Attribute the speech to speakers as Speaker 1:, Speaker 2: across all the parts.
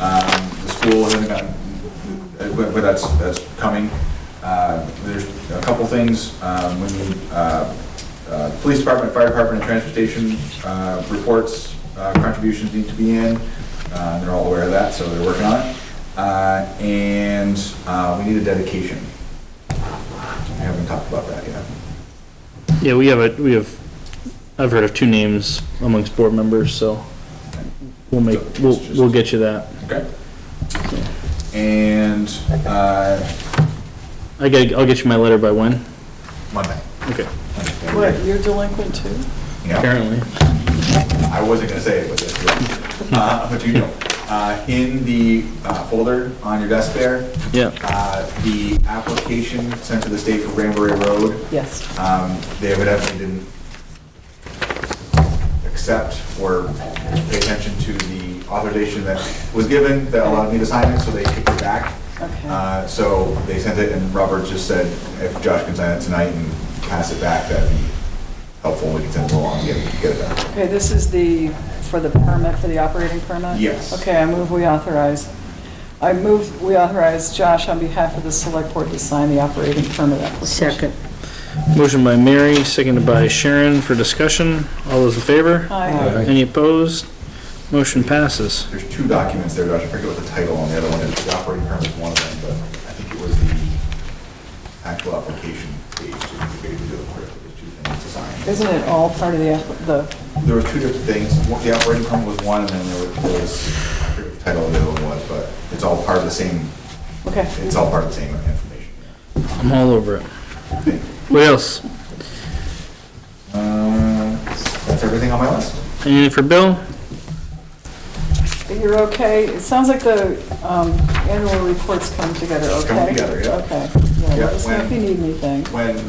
Speaker 1: Um, The school hasn't gotten, uh, but but that's, that's coming. Uh, There's a couple things, um, when you, uh, uh, police department, fire department, and transportation uh, reports, uh, contributions need to be in. Uh, They're all aware of that, so they're working on it. Uh, And uh, we need a dedication. I haven't talked about that yet.
Speaker 2: Yeah, we have a, we have, I've heard of two names amongst board members, so we'll make, we'll, we'll get you that.
Speaker 1: Okay. And uh,
Speaker 2: I get, I'll get you my letter by when?
Speaker 1: Monday.
Speaker 2: Okay,
Speaker 3: What, you're delinquent too?
Speaker 1: Yeah,
Speaker 2: apparently.
Speaker 1: I wasn't gonna say it, but it's, uh, but you know, uh, in the uh, folder on your desk there,
Speaker 2: Yeah,
Speaker 1: uh, the application sent to the state for Granbury Road,
Speaker 3: Yes.
Speaker 1: um, they evidently didn't accept or pay attention to the authorization that was given that allowed me to sign it, so they kicked it back.
Speaker 3: Okay.
Speaker 1: Uh, So they sent it, and Robert just said, if Josh can sign it tonight and pass it back, that'd be helpful, we can send it along and get get it done.
Speaker 3: Okay, this is the, for the permit, for the operating permit?
Speaker 1: Yes.
Speaker 3: Okay, I move we authorize, I move we authorize Josh on behalf of the select board to sign the operating permit application.
Speaker 4: Second.
Speaker 2: motion by Mary, seconded by Sharon for discussion. All those in favor?
Speaker 3: Aye.
Speaker 2: Any opposed? Motion passes.
Speaker 1: There's two documents there, Josh, I forget what the title on the other one is, the operating permit is one of them, but I think it was the actual application page, that we gave you the clerk, there's two things to sign.
Speaker 3: Isn't it all part of the, app- the,
Speaker 1: There were two different things, One- the operating permit was one, and then there was- there was, I forget what the title of the other one was, but it's all part of the same,
Speaker 3: okay.
Speaker 1: it's all part of the same information.
Speaker 2: I'm all over it. What else?
Speaker 1: Uh, That's everything on my list.
Speaker 2: Anything for Bill?
Speaker 3: You're okay? It sounds like the um, annual reports come together, okay?
Speaker 1: Come together, yeah.
Speaker 3: Okay, yeah,
Speaker 1: Yeah,
Speaker 3: let us know if you
Speaker 1: when-
Speaker 3: need anything.
Speaker 1: When,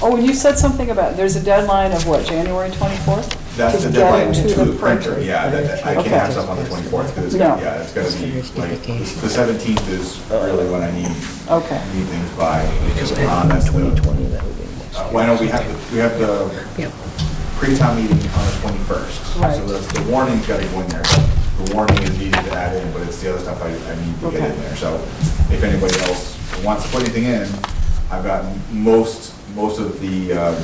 Speaker 3: Oh, and you said something about, there's a deadline of what, January 24th?
Speaker 1: that's the
Speaker 3: To get
Speaker 1: deadline
Speaker 3: it
Speaker 1: to the printer, yeah, that, that- I can't
Speaker 3: Okay.
Speaker 1: have stuff on the twenty-fourth, because it's, gonna-
Speaker 3: No.
Speaker 1: yeah, it's gonna be,
Speaker 4: It's gonna
Speaker 1: like,
Speaker 4: be dedication.
Speaker 1: the seventeenth is really when I need,
Speaker 3: Okay.
Speaker 1: need things by. uh, that's the-
Speaker 4: that would be
Speaker 1: uh, Why don't we have, the- we have the
Speaker 4: Yep.
Speaker 1: pre-town meeting on the twenty-first. So
Speaker 3: Right.
Speaker 1: that's, the warning's gotta go in there, the warning is easy to add in, but it's the other stuff I, I need to get
Speaker 3: Okay.
Speaker 1: in there, so if anybody else wants to put anything in, I've got most, most of the, um,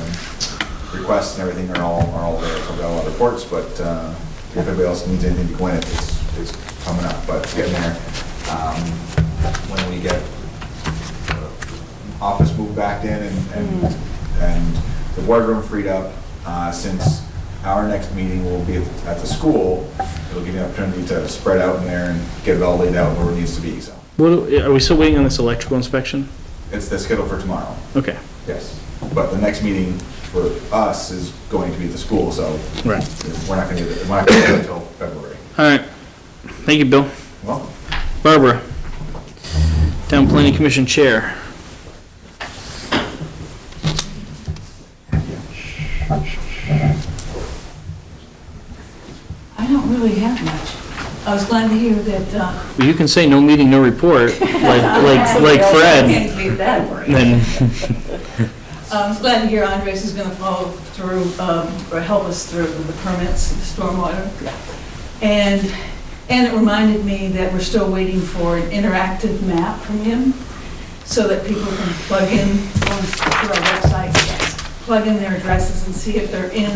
Speaker 1: requests and everything are all, are all there, so I've got a lot of reports, but, uh, if anybody else needs anything to go in, it's, it's coming up, but it's getting there. Um, when we get uh, office moved back in and, and, and the boardroom freed up. Uh, since our next meeting will be at, at the school, it'll give you an opportunity to spread out in there and get it all laid out where it needs to be, so.
Speaker 2: What, are we still waiting on this electrical inspection?
Speaker 1: It's the schedule for tomorrow,
Speaker 2: Okay,
Speaker 1: yes. But the next meeting for us is going to be at the school, so
Speaker 2: right.
Speaker 1: we're not gonna, do it- we're not gonna do it until February.
Speaker 2: All right. Thank you, Bill.
Speaker 1: Well,
Speaker 2: Barbara, Town Planning Commission Chair.
Speaker 5: I don't really have much. I was glad to hear that, uh.
Speaker 2: Well, You can say no meeting, no report, like, like, like Fred,
Speaker 5: Can't leave that for you.
Speaker 2: then,
Speaker 5: I was glad to hear Andres is gonna follow through, um, or help us through with the permits, the stormwater. And, and it reminded me that we're still waiting for an interactive map from him so that people can plug in on to our website, plug in their addresses and see if they're in,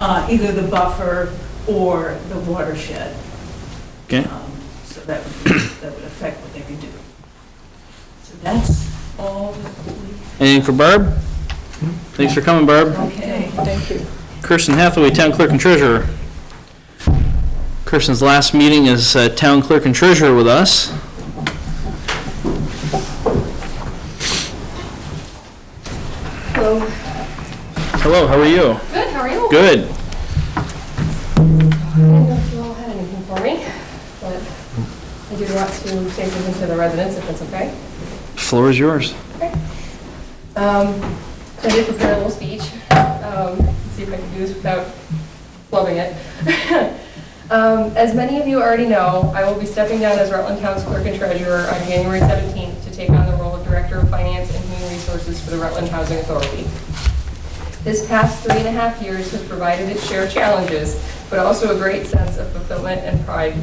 Speaker 5: uh, either the buffer or the watershed.
Speaker 2: okay,
Speaker 5: Um, So that would, that would affect what they can do. So that's all that we,
Speaker 2: anything for Barb? Thanks for coming, Barb.
Speaker 5: okay.
Speaker 3: Thank you.
Speaker 2: Kirsten Hathaway, Town Clerk and Treasurer. Kirsten's last meeting as uh, Town Clerk and Treasurer with us.
Speaker 6: Hello.
Speaker 2: Hello, how are you?
Speaker 6: Good, how are you?
Speaker 2: Good.
Speaker 6: I didn't know if you all had anything for me, but I do want to say something to the residents, if that's okay.
Speaker 2: Floor is yours.
Speaker 6: Um, so I did prepare a little speech, um, let's see if I can do this without flubbing it. Um, as many of you already know, I will be stepping down as Rutland Town's Clerk and Treasurer on January 17th to take on the role of Director of Finance and Human Resources for the Rutland Housing Authority. This past three and a half years has provided its share of challenges, but also a great sense of fulfillment and pride